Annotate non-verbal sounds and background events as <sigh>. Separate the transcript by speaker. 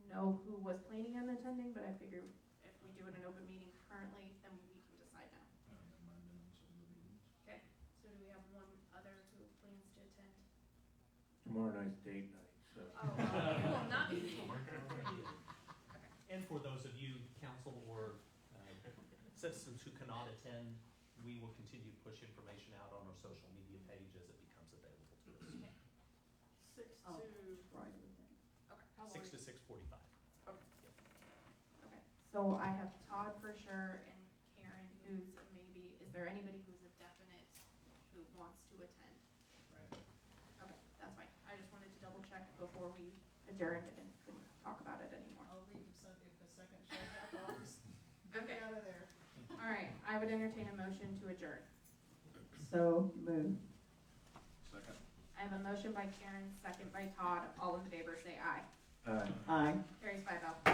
Speaker 1: I figure if we do it in open meeting currently, then we can decide now.
Speaker 2: I don't have my minutes on the meetings.
Speaker 1: So do we have one other who plans to attend?
Speaker 3: Tomorrow night's date night, so.
Speaker 1: <laughs> Oh, well, you will
Speaker 3: <laughs>
Speaker 1: not <laughs> be here.
Speaker 4: And for those of you, council or uh, citizens who cannot attend, we will continue to push information out on our social media page as it becomes available to us.
Speaker 1: Six
Speaker 5: Oh.
Speaker 1: to,
Speaker 5: Friday then.
Speaker 1: okay.
Speaker 4: Six to six forty-five.
Speaker 1: Okay, so I have Todd for sure and Karen who's a maybe. Is there anybody who's a definite who wants to attend? Okay, that's fine. I just wanted to double check before we adjourned and couldn't talk about it anymore.
Speaker 5: I'll leave if some- if the second shows up, I'll just get
Speaker 1: Okay,
Speaker 5: out of there.
Speaker 1: all right. I would entertain a motion to adjourn.
Speaker 5: So moved.
Speaker 2: Second.
Speaker 1: I have a motion by Karen, second by Todd. All in favor, say aye.
Speaker 3: Uh,
Speaker 5: Aye.
Speaker 1: Carries five oh.